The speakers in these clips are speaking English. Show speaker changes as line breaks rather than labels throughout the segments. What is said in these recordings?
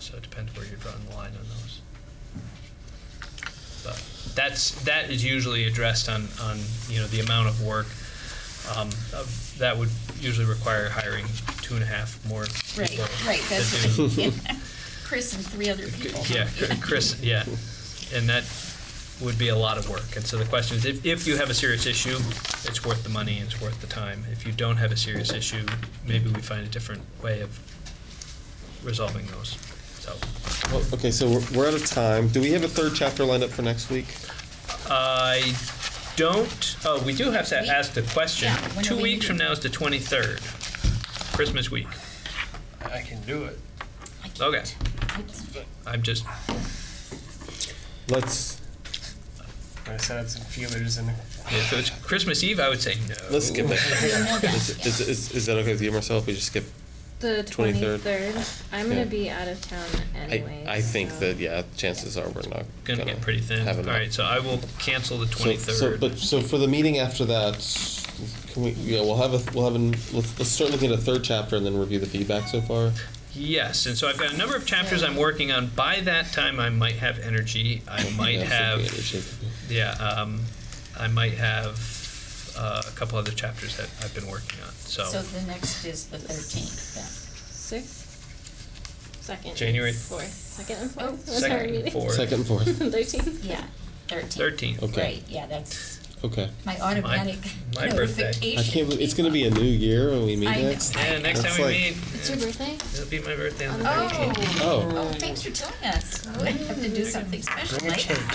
so it depends where you're drawing the line on those. But that's, that is usually addressed on, on, you know, the amount of work. Um, of- That would usually require hiring two and a half more people.
Right, right,
to
that's
do-
what I- yeah. Chris and three other people.
yeah, Chr- Chris, yeah, and that would be a lot of work. And so the question is, if, if you have a serious issue, it's worth the money and it's worth the time. If you don't have a serious issue, maybe we find a different way of resolving those. So,
Well, Okay, so we're, we're out of time. Do we have a third chapter lined up for next week?
I don't, oh, we do have to
Week?
ask the question.
Yeah, when are
Two
we
weeks from
meeting?
now is the twenty-third, Christmas week.
I can do it.
I can't.
Okay.
I can't.
I'm just,
Let's,
I sent out some feelers and
if it was Christmas Eve, I would say no.
let's skip it.
There's more back, yeah.
Is, is, is that okay with you, Marcel, if we just skip?
The
23rd.
23rd. I'm
Yeah.
going to be out of town
I,
anyway.
I think
so-
that, yeah, chances are we're not
Gonna get pretty thin.
have
All
enough.
right, so I will cancel the
So- So, but,
twenty-third.
so for the meeting after that, can we, yeah, we'll have a, we'll have an, let's, let's start looking at a third chapter and then review the feedback so far.
Yes, and so I've got a number of chapters I'm working on. By that time, I might have energy. I might
Yeah, so we
have,
should-
yeah, um, I might have uh, a couple other chapters that I've been working on.
So
So,
the next is the thirteenth, then.
Sixth? Second. and
January-
Fourth. Second and
Oh,
fourth.
second and fourth.
Second and fourth,
Thirteenth.
Yeah, thirteenth.
thirteenth.
Okay.
Right, yeah, that's
okay.
my automatic
my birthday.
notification.
I can't, believe- it's gonna be a new year when we meet
I know.
next.
Yeah, next
That's
time we
like-
meet,
It's your birthday?
it'll be my birthday on the
Oh.
nineteenth.
Oh,
Oh, thanks for telling us. We have to do something special,
bring a
right?
cake.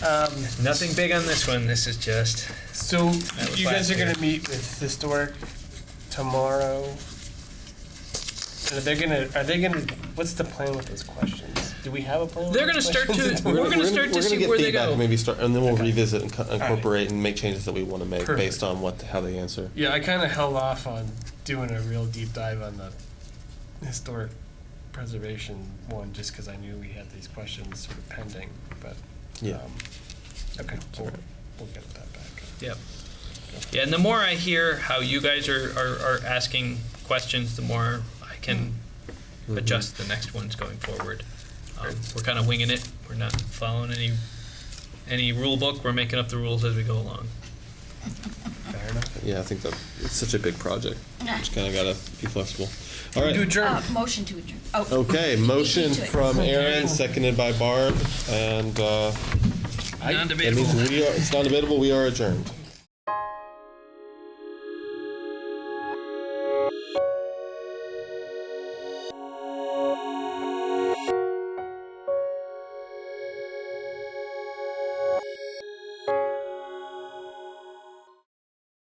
Um,
Nothing big on this one. This is just
so
was
you guys
last
are
year.
gonna meet with historic tomorrow. And they're gonna, are they gonna, what's the plan with those questions? Do we have a plan? with
They're
those
gonna start
questions?
to- We're gonna start to see
get
where they
feedback
go.
and Maybe start, and then we'll
Okay.
revisit and co-
right.
incorporate and make changes that we want to make
Perfect.
based on what how they answer.
Yeah, I kinda held off on doing a real deep dive on the historic preservation one, just cause I knew we had these questions sort of pending, but,
Yeah.
um, okay, we'll, we'll get that back.
Yep. Yeah, and the more I hear how you guys are, are, are asking questions, the more I can adjust the next ones going forward. Um, we're kind of winging it. We're not following any any rule book. We're making up the rules as we go along.
Fair enough.
Yeah, I think that it's such a big project. Just kind of gotta be flexible. All
Do
right.
adjourn.
Uh, motion to adjourn. Oh.
Okay,
you
motion
do it.
from Aaron, seconded by Barb, and uh, that means we are, it's non-debatable, we are adjourned.